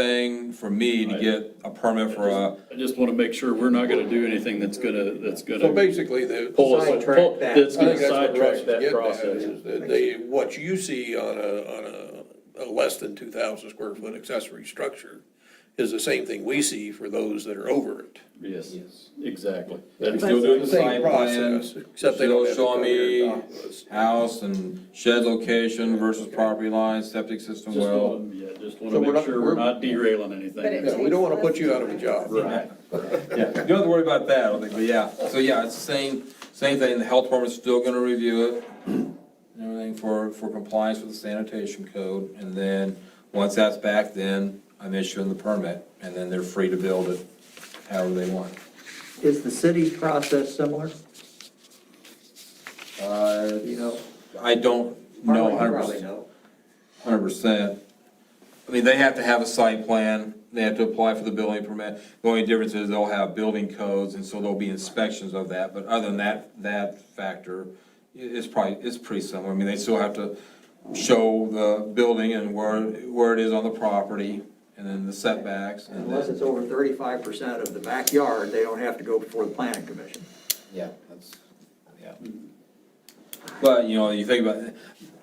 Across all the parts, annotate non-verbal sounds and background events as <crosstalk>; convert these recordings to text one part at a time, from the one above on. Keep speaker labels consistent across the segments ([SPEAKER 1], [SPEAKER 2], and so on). [SPEAKER 1] everything for me to get a permit for a,
[SPEAKER 2] I just want to make sure we're not going to do anything that's going to, that's going
[SPEAKER 3] So
[SPEAKER 2] to
[SPEAKER 3] basically, the.
[SPEAKER 2] pull us,
[SPEAKER 4] Sidetrack
[SPEAKER 2] pull-
[SPEAKER 4] that.
[SPEAKER 2] that's
[SPEAKER 3] I
[SPEAKER 2] going
[SPEAKER 3] think
[SPEAKER 2] to
[SPEAKER 3] that's what Russ
[SPEAKER 2] sidetrack
[SPEAKER 3] is
[SPEAKER 2] that
[SPEAKER 3] getting at,
[SPEAKER 2] process.
[SPEAKER 3] is that they, what you see on a, on a, a less than two thousand square foot accessory structure is the same thing we see for those that are over it.
[SPEAKER 2] Yes,
[SPEAKER 4] Yes.
[SPEAKER 2] exactly.
[SPEAKER 1] We're
[SPEAKER 2] That's-
[SPEAKER 1] still doing the
[SPEAKER 3] Same
[SPEAKER 1] site plan,
[SPEAKER 3] process, except they don't
[SPEAKER 1] still
[SPEAKER 3] have to
[SPEAKER 1] showing
[SPEAKER 3] come here
[SPEAKER 1] me
[SPEAKER 3] and dock us.
[SPEAKER 1] house and shed location versus property line, septic system
[SPEAKER 2] Just
[SPEAKER 1] well.
[SPEAKER 2] want to, yeah, just want to
[SPEAKER 3] So we're
[SPEAKER 2] make
[SPEAKER 3] not-
[SPEAKER 2] sure we're
[SPEAKER 3] we're-
[SPEAKER 2] not derailing
[SPEAKER 5] But it
[SPEAKER 2] anything.
[SPEAKER 3] Yeah, we don't wanna
[SPEAKER 5] takes
[SPEAKER 3] put you
[SPEAKER 5] less
[SPEAKER 3] out of a
[SPEAKER 5] time.
[SPEAKER 3] job.
[SPEAKER 2] Right.
[SPEAKER 1] Yeah, you don't have to worry about that, I don't think, but yeah, so yeah, it's the same, same thing, the health department's still gonna review it, and everything for, for compliance with the sanitation code, and then, once that's back, then I'm issuing the permit, and then they're free to build it however they want.
[SPEAKER 4] Is the city's process similar?
[SPEAKER 1] Uh,
[SPEAKER 4] You know?
[SPEAKER 1] I don't know
[SPEAKER 4] Harlan, you
[SPEAKER 1] hundred
[SPEAKER 4] probably
[SPEAKER 1] percent,
[SPEAKER 4] know.
[SPEAKER 1] hundred percent. I mean, they have to have a site plan, they have to apply for the building permit, the only difference is they'll have building codes, and so there'll be inspections of that, but other than that, that factor, i- it's probably, it's pretty similar, I mean, they still have to show the building and where, where it is on the property, and then the setbacks, and
[SPEAKER 4] Unless
[SPEAKER 1] then,
[SPEAKER 4] it's over thirty-five percent of the backyard, they don't have to go before the planning commission.
[SPEAKER 6] Yeah, that's, yeah.
[SPEAKER 1] Mm-hmm. but, you know, you think about, it,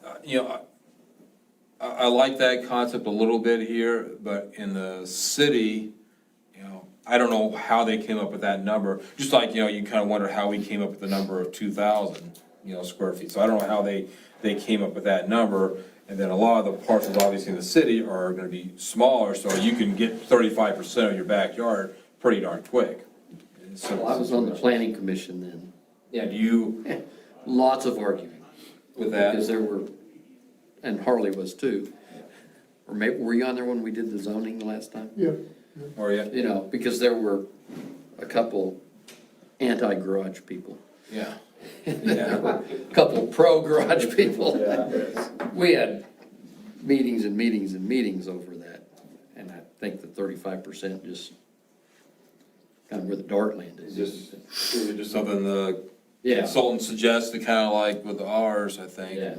[SPEAKER 1] uh, you know, I, I like that concept a little bit here, but in the city, you know, I don't know how they came up with that number, just like, you know, you kind of wonder how we came up with the number of two thousand, you know, square feet, so I don't know how they, they came up with that number, and then a lot of the parcels, obviously, in the city are gonna be smaller, so you can get thirty-five percent of your backyard pretty darn quick. It's a
[SPEAKER 6] Well, I was on the planning commission then.
[SPEAKER 1] Yeah, do you,
[SPEAKER 6] <laughs> Lots of arguing.
[SPEAKER 1] With that?
[SPEAKER 6] Because there were, and Harley was too. Or maybe, were you on there when we did the zoning last time? Yeah.
[SPEAKER 1] or you,
[SPEAKER 6] You know, because there were a couple anti-garage people.
[SPEAKER 1] yeah.
[SPEAKER 6] There were a Couple pro-garage <laughs> people. We had meetings and meetings and meetings over that. And I think the thirty-five percent just kind of where the dart landed.
[SPEAKER 1] Just- Is it just something the
[SPEAKER 6] Yeah,
[SPEAKER 1] consultant suggested, kind of like with ours, I think?
[SPEAKER 6] yeah.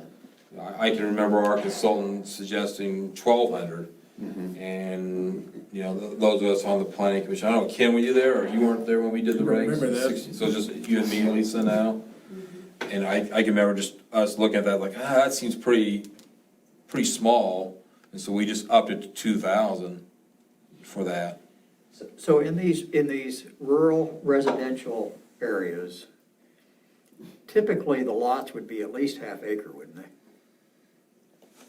[SPEAKER 1] I, I can remember our consultant suggesting twelve hundred.
[SPEAKER 6] Mm-hmm.
[SPEAKER 1] And, you know, th- those of us on the planning commission, I don't know, Ken, were you there, or you weren't there when we did the regs?
[SPEAKER 3] Remember that.
[SPEAKER 1] 60, So just you and me and Lisa now?
[SPEAKER 6] Mm-hmm.
[SPEAKER 1] And I, I can remember just us looking at that like, ah, that seems pretty, pretty small. And so we just upped it to two thousand for that.
[SPEAKER 4] So in these, in these rural residential areas, typically the lots would be at least half acre, wouldn't they?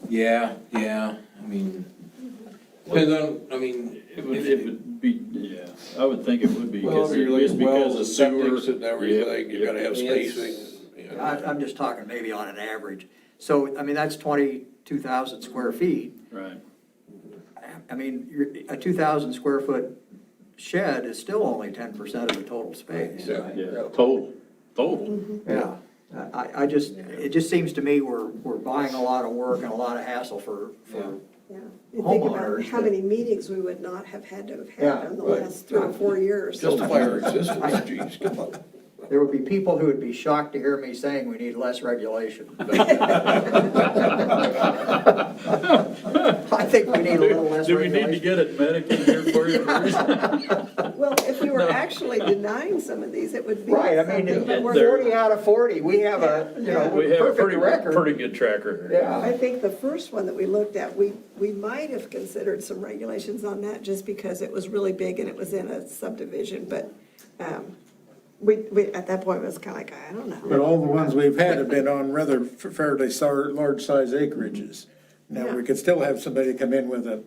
[SPEAKER 1] Yeah, yeah, I mean, depends on, I mean,
[SPEAKER 2] It would, it would be, yeah, I would think it would be.
[SPEAKER 3] Well,
[SPEAKER 2] because
[SPEAKER 3] you're
[SPEAKER 2] it- just
[SPEAKER 3] looking wells
[SPEAKER 2] because
[SPEAKER 3] and
[SPEAKER 2] of sewer.
[SPEAKER 3] septic and everything, you gotta have spacing. you know.
[SPEAKER 4] I, I'm just talking maybe on an average. So, I mean, that's twenty-two thousand square feet.
[SPEAKER 2] Right.
[SPEAKER 4] I mean, you're, a two thousand square foot shed is still only ten percent of the total space.
[SPEAKER 3] Yeah.
[SPEAKER 2] Yeah, total, total.
[SPEAKER 4] Yeah, I, I just, it just seems to me we're, we're buying a lot of work and a lot of hassle for, for,
[SPEAKER 5] Yeah, you think about
[SPEAKER 4] Homeowners
[SPEAKER 5] how
[SPEAKER 4] that-
[SPEAKER 5] many meetings we would not have had to have
[SPEAKER 4] Yeah,
[SPEAKER 5] had in the
[SPEAKER 3] right.
[SPEAKER 5] last three or four years.
[SPEAKER 3] Justify our existence, geez, come on.
[SPEAKER 4] there would be people who would be shocked to hear me saying we need less
[SPEAKER 2] <laughs>
[SPEAKER 4] regulation. I think we need a little less
[SPEAKER 2] Do we need to
[SPEAKER 4] regulation.
[SPEAKER 2] get it medically here for
[SPEAKER 4] <laughs>
[SPEAKER 2] you first?
[SPEAKER 5] Well, if we were actually denying some of these, it would be
[SPEAKER 4] Right, I mean,
[SPEAKER 5] something,
[SPEAKER 4] if
[SPEAKER 5] but we're-
[SPEAKER 2] There-
[SPEAKER 4] forty out of forty, we have a, you know,
[SPEAKER 2] We have a
[SPEAKER 4] perfect
[SPEAKER 2] pretty,
[SPEAKER 4] record.
[SPEAKER 2] pretty good tracker here.
[SPEAKER 4] Yeah.
[SPEAKER 5] I think the first one that we looked at, we, we might have considered some regulations on that just because it was really big and it was in a subdivision, but, um, we, we, at that point, it was kind of like, I don't know.
[SPEAKER 7] But all the ones we've had have been on rather fairly sar- large-size acreages. Now, we could still have somebody come in with a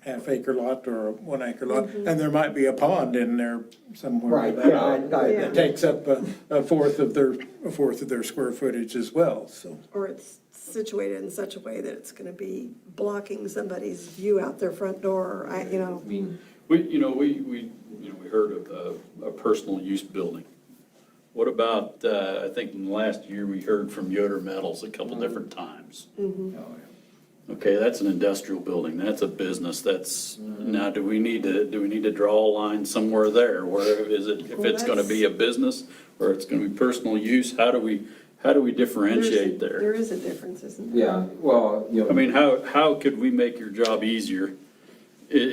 [SPEAKER 7] half-acre lot or a one-acre lot, and there might be a pond in there somewhere.
[SPEAKER 4] Right, yeah, I- I-
[SPEAKER 5] Yeah.
[SPEAKER 7] That takes up a, a fourth of their, a fourth of their square footage as well, so.
[SPEAKER 5] or it's situated in such a way that it's gonna be blocking somebody's view out their front door, I, you know.
[SPEAKER 1] I mean,
[SPEAKER 2] We, you know, we, we, you know, we heard of a, a personal use building. What about, uh, I think in the last year, we heard from Yoder Metals a
[SPEAKER 5] Mm-hmm.
[SPEAKER 2] couple different times. Okay, that's an industrial building, that's a business, that's, now, do we need to, do we need to draw a line somewhere there? Where is it, if
[SPEAKER 5] Well,
[SPEAKER 2] it's gonna be a business, or it's gonna be personal use, how do we, how do we differentiate
[SPEAKER 5] There's- There is a difference, isn't there?
[SPEAKER 1] yeah, well, you know.
[SPEAKER 2] I mean, how, how could we make your job easier it,